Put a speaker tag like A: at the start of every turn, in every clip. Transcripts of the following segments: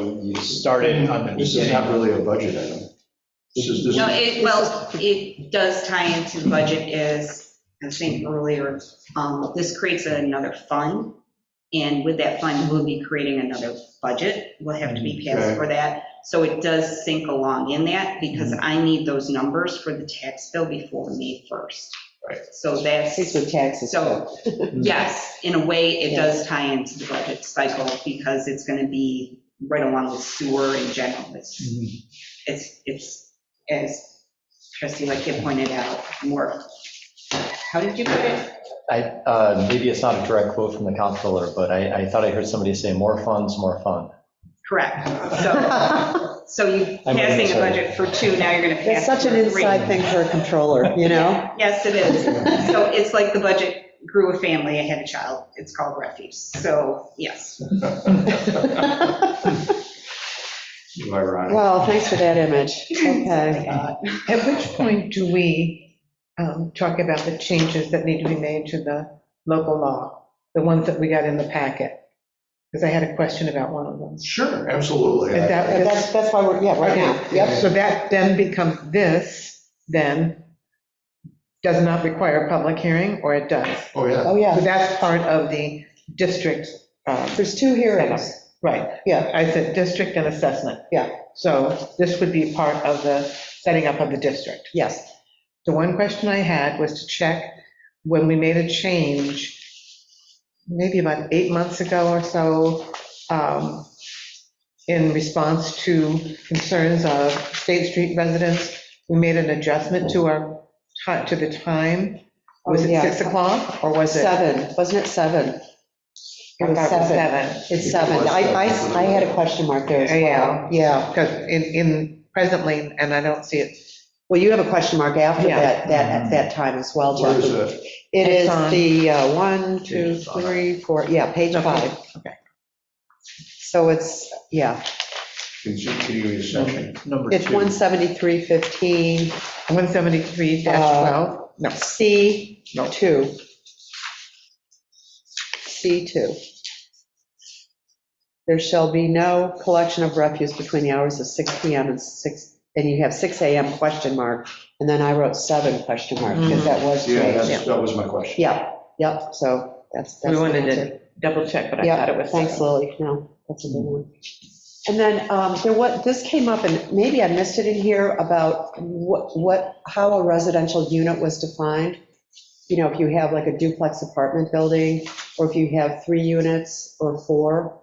A: you-
B: started on the
A: This is not
B: beginning.
A: really a budget item. This is, this
C: No,
A: is,
C: it, well, it does tie into the budget as I was saying earlier, um, this creates another fund. And with that fund, we'll be creating another budget. We'll have to be passed
A: Okay.
C: for that. So it does sink along in that because
A: Mm-hmm.
C: I need those numbers for the tax bill before May 1st.
A: Right.
C: So that's,
D: It's with taxes.
C: so, yes, in a way, it does tie into the budget cycle because it's going to be right along with sewer in general. It's
B: Mhm.
E: Mm-hmm.
C: it's, it's, as trustee Lickett pointed out, more, how did you put it?
E: I, uh, maybe it's not a direct quote from the comptroller, but I, I thought I heard somebody say more funds, more fun.
C: Correct. So, so you
E: I'm really
C: passing a
E: sorry.
C: budget for two, now you're going to pass.
D: That's such an
C: for three.
D: inside thing for a controller, you know?
C: Yes, it is. So it's like the budget grew a family, I had a child, it's called refuse. So, yes.
A: you are right.
D: Well, thanks for that image. Okay.
C: Uh,
F: At which point do we um, talk about the changes that need to be made to the local law, the ones that we got in the packet? Because I had a question about one of them.
A: Sure, absolutely.
F: Is that-
D: But That's, that's why we're, yeah, right now. Yep.
F: So that then becomes this, then, does not require a public hearing, or it does?
A: Oh, yeah.
D: Oh,
F: So
D: yeah.
F: that's part of the district, um,
D: There's two hearings.
F: right,
D: Yeah.
F: I said district and assessment.
D: Yeah.
F: So this would be part of the setting up of the district.
D: Yes.
F: The one question I had was to check when we made a change, maybe about eight months ago or so, um, in response to concerns of State Street residents, we made an adjustment to our, ti- to the time. Was
D: Oh,
F: it
D: yeah.
F: 6 o'clock or was it?
D: Seven, wasn't it seven?
F: I thought it was
D: Seven.
F: 7.
D: It's seven. I, I, I had a question mark there as well.
F: Oh, Yeah.
D: Yeah.
F: Because in, in presently, and I don't see it,
D: Well, you have a question mark after
F: Yeah.
D: that, that, at that time as well,
A: Where is
D: Jackie.
A: that?
D: It
F: It's
D: is
F: on-
D: the uh, one, two,
A: Page five.
D: three, four, yeah, page
F: Okay,
D: five.
F: okay.
D: So it's, yeah,
A: Continuing section.
B: Number
D: it's
B: two.
D: 17315,
F: Uh, 173-12. No.
D: C2.
B: No.
D: C2. There shall be no collection of refuse between the hours of 6 PM and 6, and you have 6 AM question mark, and then I wrote 7 question mark,
F: Mm.
D: because that was
A: Yeah,
D: changed.
A: that's- that was my question.
D: Yeah, yep, so that's. that's
F: We
D: the
F: wanted
D: answer.
F: to double check, but I thought it
D: Yeah,
F: was.
D: thanks, Lily, no, that's a good one. And then um, there what, this came up, and maybe I missed it in here, about what, what, how a residential unit was defined. You know, if you have like a duplex apartment building, or if you have three units or four.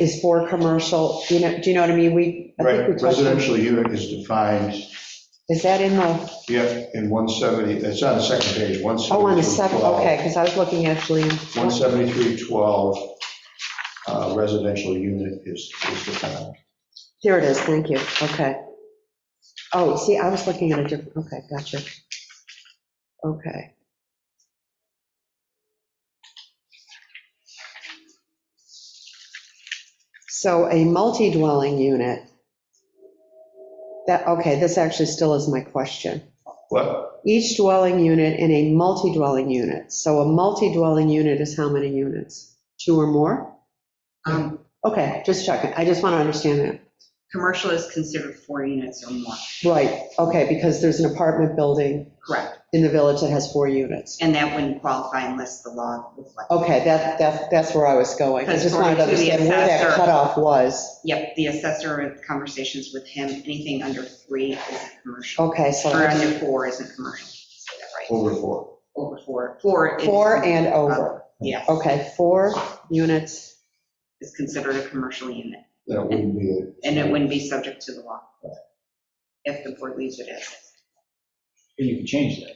D: Is four commercial, you know, do you know what I mean? We, I think we
A: Right,
D: touched on-
A: residential unit is defined,
D: Is that in the,
A: yeah, in 170, it's on the second page, 173.
D: oh, on the seven, okay, because I was looking actually,
A: 17312, uh, residential unit is is defined.
D: there it is, thank you, okay. Oh, see, I was looking at a different, okay, gotcha. Okay. So a multi-dwelling unit, that, okay, this actually still is my question.
A: What?
D: Each dwelling unit and a multi-dwelling unit. So a multi-dwelling unit is how many units? Two or more?
C: Um,
D: Okay, just checking. I just want to understand that.
C: Commercial is considered four units or more,
D: Right, okay, because there's an apartment building
C: correct.
D: in the village that has four units.
C: And that wouldn't qualify unless the law reflects.
D: Okay, that, that's, that's where I was going. I just wanted to
C: Because according to the
D: understand where that
C: assessor-
D: cutoff was.
C: Yep, the assessor, conversations with him, anything under three is commercial.
D: Okay, so
C: Or under four isn't commercial, is that right?
A: Over four.
C: over four. Four. is- uh,
D: four and over.
C: Yeah,
D: Okay, four units.
C: is considered a commercial unit,
A: That wouldn't be it.
C: and it wouldn't be subject to the law if the board leaves it as is.
B: You can change that.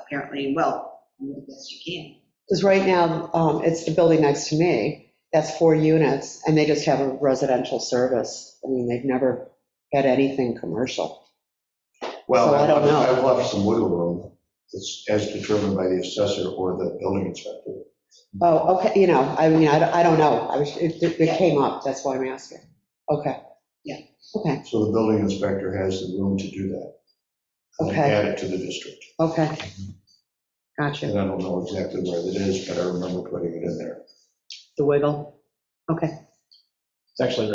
C: Apparently, well, yes, you can.
D: Because right now, um, it's the building next to me, that's four units, and they just have a residential service. I mean, they've never had anything commercial.
A: Well,
D: So I don't know.
A: I've left some wiggle room, it's as determined by the assessor or the building inspector.
D: Oh, okay, you know, I mean, I don't- I don't know. I was, it it came up, that's why I'm asking. Okay.
C: Yeah.
D: Okay.
A: So the building inspector has the room to do that. And
D: Okay.
A: add it to the district.
D: Okay. Gotcha,
A: And I don't know exactly where that is, but I remember putting it in there.
D: the wiggle. Okay.
E: It's actually